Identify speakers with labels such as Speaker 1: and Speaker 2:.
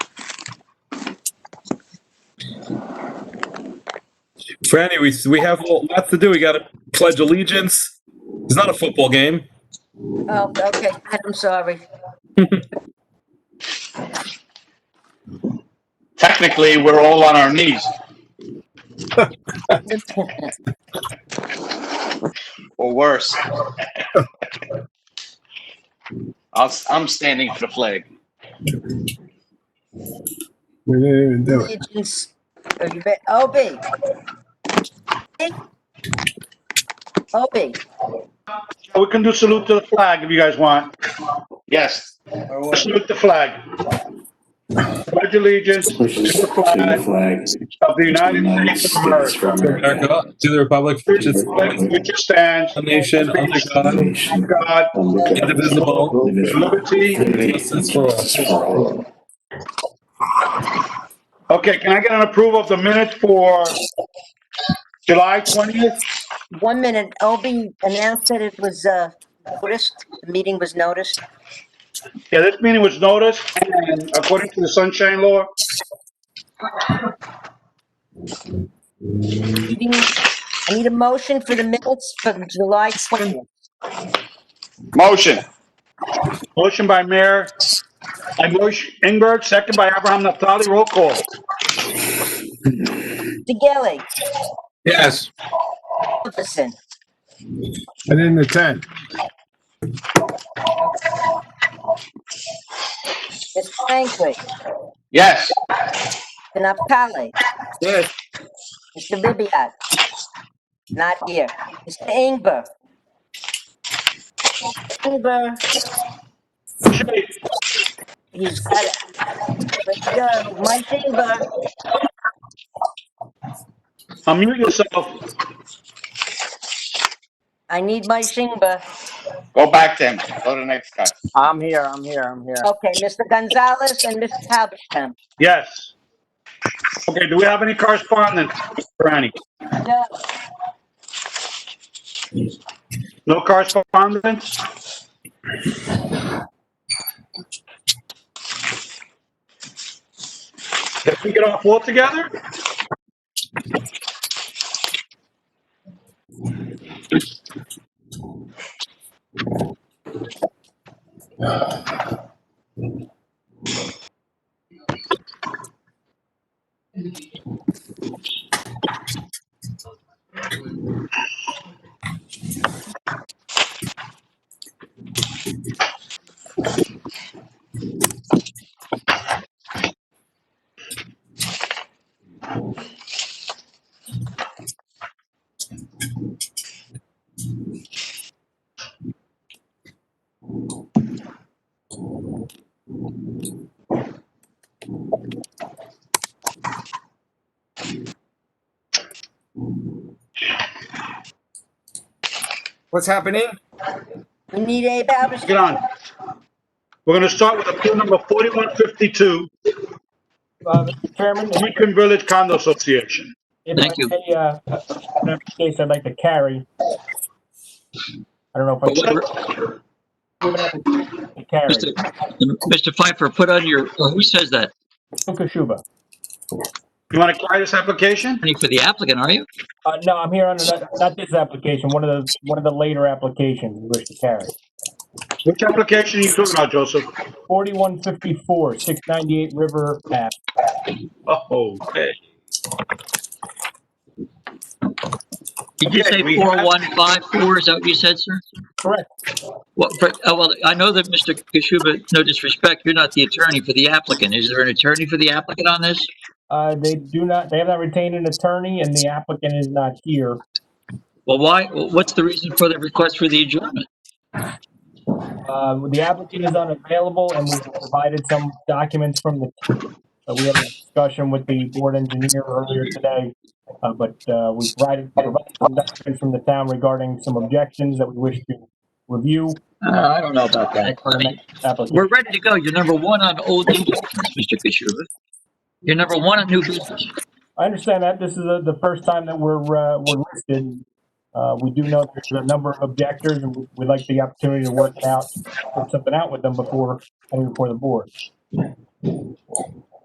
Speaker 1: Franny, we we have lots to do. We got to pledge allegiance. It's not a football game.
Speaker 2: Oh, okay, I'm sorry.
Speaker 3: Technically, we're all on our knees, or worse. I'll, I'm standing for the flag.
Speaker 4: We didn't even do it.
Speaker 2: Allegiance, oh, you bet, OB. OB,
Speaker 5: We can do salute to the flag if you guys want.
Speaker 3: Yes,
Speaker 5: Salute the flag. Pledge allegiance to the
Speaker 6: the
Speaker 5: flag
Speaker 6: flag
Speaker 5: of the
Speaker 6: of the
Speaker 5: United
Speaker 6: United
Speaker 5: States of
Speaker 6: States
Speaker 5: America,
Speaker 6: of America,
Speaker 1: America, to the republic for which
Speaker 5: which
Speaker 1: it
Speaker 5: is- which stands
Speaker 1: a nation under Oh God,
Speaker 6: nation,
Speaker 5: God,
Speaker 1: indivisible,
Speaker 6: indivisible,
Speaker 5: liberty.
Speaker 6: with
Speaker 1: justice for all.
Speaker 6: justice for all.
Speaker 5: Okay, can I get an approval of the minutes for July 20th?
Speaker 2: one minute, OB announced that it was, uh, noticed, the meeting was noticed.
Speaker 5: Yeah, this meeting was noticed and according to the sunshine law,
Speaker 2: Meeting- I need a motion for the minutes from July 20th.
Speaker 3: motion.
Speaker 5: motion by Mayor, by Bush Ingberg, second by Abraham Naftali, roll call.
Speaker 2: DeGale,
Speaker 1: Yes.
Speaker 2: Jefferson,
Speaker 4: I didn't attend.
Speaker 2: Ms. Franklin,
Speaker 3: Yes,
Speaker 2: Napali,
Speaker 1: Yes.
Speaker 2: Mr. Ribbiat, not here. Mr. Ingber. Ingber. He's got it. Let's go. Mike Ingber.
Speaker 5: Unmute yourself.
Speaker 2: I need my Ingber.
Speaker 3: go back then. Go to the next guy.
Speaker 7: I'm here, I'm here, I'm here.
Speaker 2: Okay, Mr. Gonzalez and Mr. Halberstam.
Speaker 5: Yes. Okay, do we have any correspondence, Franny?
Speaker 2: No,
Speaker 5: No correspondence? Did we get off altogether?
Speaker 8: What's happening?
Speaker 2: we need Abe
Speaker 5: Get
Speaker 2: Halberstam.
Speaker 5: on. We're going to start with appeal number 4152,
Speaker 7: Uh, Mr. Chairman, if
Speaker 5: Lincoln Village Condo Association.
Speaker 7: if I may, uh, in case I'd like to carry. I don't know if I should. Even if I should Carry,
Speaker 9: Mr. Mr. Pfeiffer, put on your, oh, who says that?
Speaker 7: Fukushiba.
Speaker 5: You want to carry this application?
Speaker 9: Any for the applicant, are you?
Speaker 7: Uh, no, I'm here on, another- not this application, one of the, one of the later applications we wish to carry.
Speaker 5: Which application are you talking about, Joseph?
Speaker 7: Forty-one fifty-four, six ninety-eight River Ave.
Speaker 5: Oh, okay.
Speaker 9: Did you
Speaker 5: Okay,
Speaker 9: say
Speaker 5: we have-
Speaker 9: 4154? Is that what you said, sir?
Speaker 7: Correct.
Speaker 9: Well, for- oh, well, I know that Mr. Kishuba, no disrespect, you're not the attorney for the applicant. Is there an attorney for the applicant on this?
Speaker 7: Uh, they do not, they have not retained an attorney and the applicant is not here.
Speaker 9: Well, why, what's the reason for the request for the adjournment?
Speaker 7: Uh, the applicant is unavailable and we've provided some documents from the, uh, we had a discussion with the board engineer earlier today. Uh, but, uh, we provided, provided some documents from the town regarding some objections that we wish to review.
Speaker 9: Uh, I don't know about that. I mean,
Speaker 7: Applicant,
Speaker 9: We're ready to go. You're number one on old new business, Mr. Kishuba. You're number one on new business.
Speaker 7: I understand that this is the, the first time that we're, uh, we're listed. Uh, we do know there's a number of objectors and we- we'd like the opportunity to work it out, work something out with them before, coming before the board.